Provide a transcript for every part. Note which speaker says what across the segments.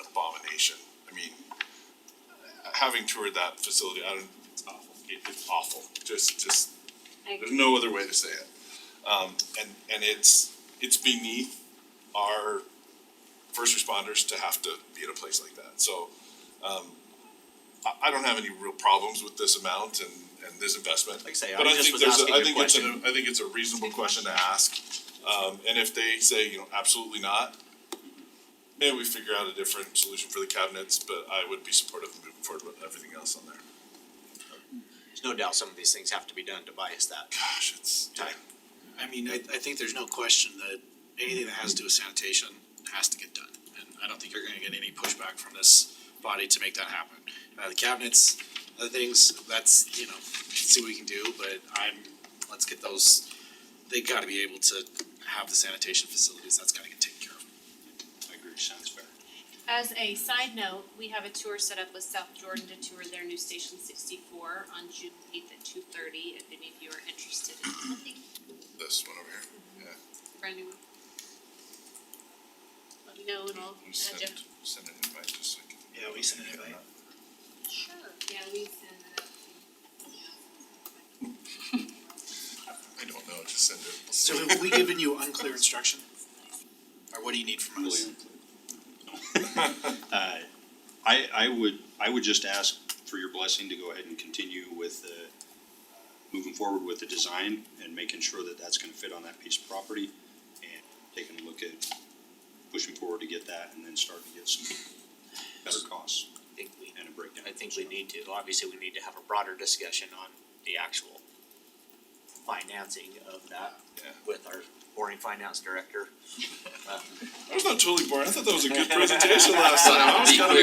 Speaker 1: accommodation. I mean, having toured that facility, I don't, it's awful, It- it's awful, just, just, there's no other way to say it. Um, and, and it's, it's beneath our first responders to have to be at a place like that, so, um, I, I don't have any real problems with this amount and, and this investment.
Speaker 2: Like I say, I
Speaker 1: But I
Speaker 2: just
Speaker 1: think
Speaker 2: was
Speaker 1: there's, a-
Speaker 2: asking
Speaker 1: I
Speaker 2: a
Speaker 1: think it's
Speaker 2: question.
Speaker 1: an, I think it's a reasonable question to ask, um, and if they say, you know, absolutely not, maybe we figure out a different solution for the cabinets, but I would be supportive of moving forward with everything else on there.
Speaker 2: There's no doubt some of these things have to be done to bias that
Speaker 1: Gosh, it's.
Speaker 2: time.
Speaker 3: I mean, I, I think there's no question that anything that has to do with sanitation has to get done. And I don't think you're gonna get any pushback from this body to make that happen. Uh, the cabinets, other things, that's, you know, see what we can do, but I'm, let's get those, they gotta be able to have the sanitation facilities, that's gotta get taken care of.
Speaker 2: I agree, sounds fair.
Speaker 4: As a side note, we have a tour set up with South Jordan to tour their new station sixty-four on June eighth at two thirty, if any of you are interested in something,
Speaker 1: This one over here,
Speaker 4: brand new one. Let me know and I'll add you.
Speaker 1: send an invite just so I can.
Speaker 2: Yeah, we sent an invite.
Speaker 4: Sure. Yeah, we send it up to, yeah.
Speaker 1: I don't know, just send it.
Speaker 3: So have we given you unclear instruction? Or what do you need from us?
Speaker 5: Uh, I, I would, I would just ask for your blessing to go ahead and continue with the, uh, moving forward with the design and making sure that that's gonna fit on that piece of property and taking a look at pushing forward to get that and then start to get some better costs
Speaker 2: I think we,
Speaker 5: and a breakdown.
Speaker 2: I think we need to, obviously, we need to have a broader discussion on the actual financing of that
Speaker 1: Yeah.
Speaker 2: with our boring finance director. Um,
Speaker 1: I was not totally boring, I thought that was a good presentation last time, I was
Speaker 6: Be
Speaker 1: kind of
Speaker 6: clear that-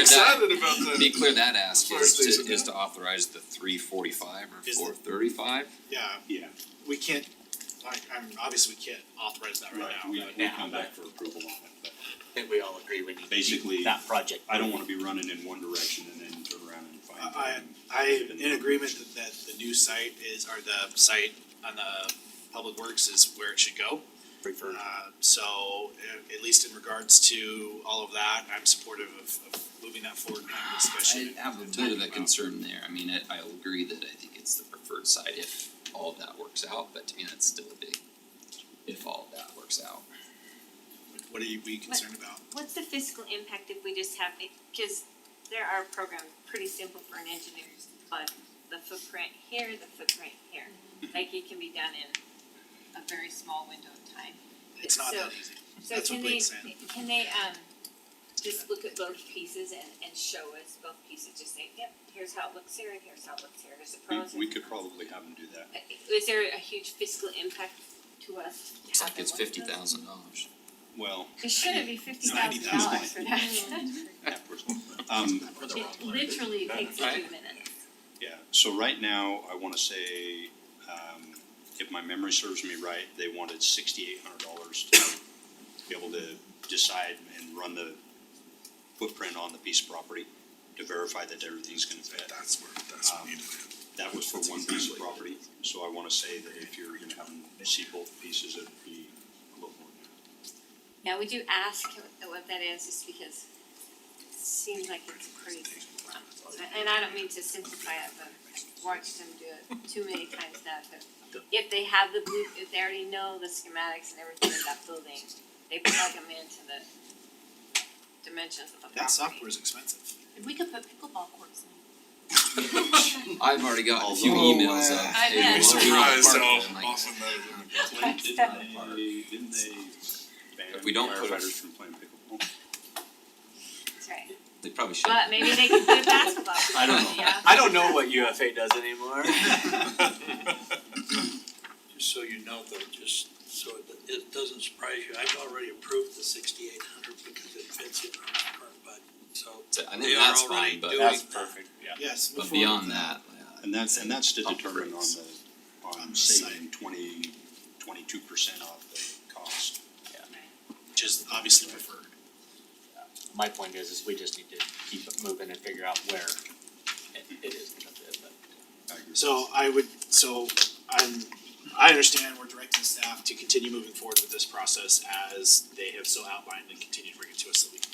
Speaker 1: excited about
Speaker 6: To Be
Speaker 1: the.
Speaker 6: clear, that ask is
Speaker 1: First is-
Speaker 6: to, is to authorize the three forty-five or
Speaker 3: Is it-
Speaker 6: four thirty-five?
Speaker 3: Yeah,
Speaker 5: Yeah,
Speaker 3: we can't, I, I'm, obviously we can't authorize that right
Speaker 5: right,
Speaker 3: now,
Speaker 5: we,
Speaker 3: but-
Speaker 5: we come back for approval on it, but
Speaker 2: I think we all agree we need to do
Speaker 5: Basically,
Speaker 2: that project.
Speaker 5: I don't wanna be running in one direction and then turn around and find.
Speaker 3: I, I, I'm in agreement that, that the new site is, or the site on the public works is where it should go.
Speaker 2: Prefer-
Speaker 3: Uh, so, a- at least in regards to all of that, I'm supportive of, of moving that forward and having a
Speaker 6: I
Speaker 3: discussion.
Speaker 6: have a bit of a concern there, I mean, I, I'll agree that I think it's the preferred side if all of that works out, but to me, that's still a big, if all of that works out.
Speaker 3: What are you, we concerned about?
Speaker 7: What's the fiscal impact if we just have, because there are programs pretty simple for an engineer, but the footprint here, the footprint here.
Speaker 6: Mm-hmm.
Speaker 7: Like it can be done in a very small window of time.
Speaker 3: It's not that
Speaker 7: So-
Speaker 3: easy.
Speaker 7: So
Speaker 3: That's what
Speaker 7: can they,
Speaker 3: Blake's saying.
Speaker 7: can they, um, just look at both pieces and, and show us both pieces, just say, yep, here's how it looks here and here's how it looks here, there's the
Speaker 5: We,
Speaker 7: pros and
Speaker 5: we could
Speaker 7: cons."
Speaker 5: probably have them do that.
Speaker 7: Uh, Is there a huge fiscal impact to us? to
Speaker 6: Looks
Speaker 7: have
Speaker 6: like
Speaker 7: them
Speaker 6: it's
Speaker 7: look at
Speaker 6: fifty
Speaker 7: those?
Speaker 6: thousand dollars.
Speaker 5: Well,
Speaker 7: It shouldn't be fifty
Speaker 3: Ninety
Speaker 7: thousand dollars for that.
Speaker 6: Mm-hmm.
Speaker 5: that person- um,
Speaker 7: It literally takes a few
Speaker 6: Right.
Speaker 7: minutes.
Speaker 5: yeah, so right now, I wanna say, um, if my memory serves me right, they wanted sixty-eight hundred dollars to be able to decide and run the footprint on the piece of property to verify that everything's gonna fit.
Speaker 1: That's where, that's what needed it.
Speaker 5: That was for one piece of property, so I wanna say that if you're gonna have them see both pieces, it'd be a little more.
Speaker 7: Now, would you ask what that is, just because it seems like it's pretty simple. And I don't mean to simplify it, but I've watched them do it too many times now, so if they have the blue, if they already know the schematics and everything of that building, they plug them into the dimensions of the property.
Speaker 3: That software is expensive.
Speaker 4: We could put pickleball courts in.
Speaker 6: I've already got a few
Speaker 5: Although,
Speaker 6: emails
Speaker 5: uh,
Speaker 6: of.
Speaker 7: I
Speaker 6: "Hey,
Speaker 7: bet.
Speaker 6: we're
Speaker 7: Yeah.
Speaker 1: Surprised
Speaker 6: parking,"
Speaker 1: how
Speaker 6: and like,
Speaker 1: often that is.
Speaker 5: Didn't
Speaker 7: That's
Speaker 5: they,
Speaker 7: definitely-
Speaker 5: didn't they ban
Speaker 6: If we don't put-
Speaker 5: firefighters from playing pickleball?
Speaker 7: That's right.
Speaker 6: They probably should.
Speaker 7: But maybe they could put a basketball.
Speaker 5: I don't know.
Speaker 7: Yeah.
Speaker 2: I don't know what UFA does anymore.
Speaker 8: Just so you know though, just so it, it doesn't surprise you, I've already approved the sixty-eight hundred because it fits in our current budget, so.
Speaker 6: So I
Speaker 8: They
Speaker 6: think
Speaker 8: are
Speaker 6: that's
Speaker 8: already
Speaker 6: fine, but,
Speaker 8: doing that.
Speaker 3: Yes.
Speaker 6: but beyond that, yeah.
Speaker 5: And that's, and that's to determine on
Speaker 6: Upgrades.
Speaker 5: the, on saving twenty, twenty-two percent off the cost.
Speaker 3: Which is obviously preferred.
Speaker 2: My point is, is we just need to keep it moving and figure out where it, it is gonna fit, but.
Speaker 5: I agree.
Speaker 3: So I would, so I'm, I understand we're directing staff to continue moving forward with this process as they have so outlined and continue to bring it to us so we can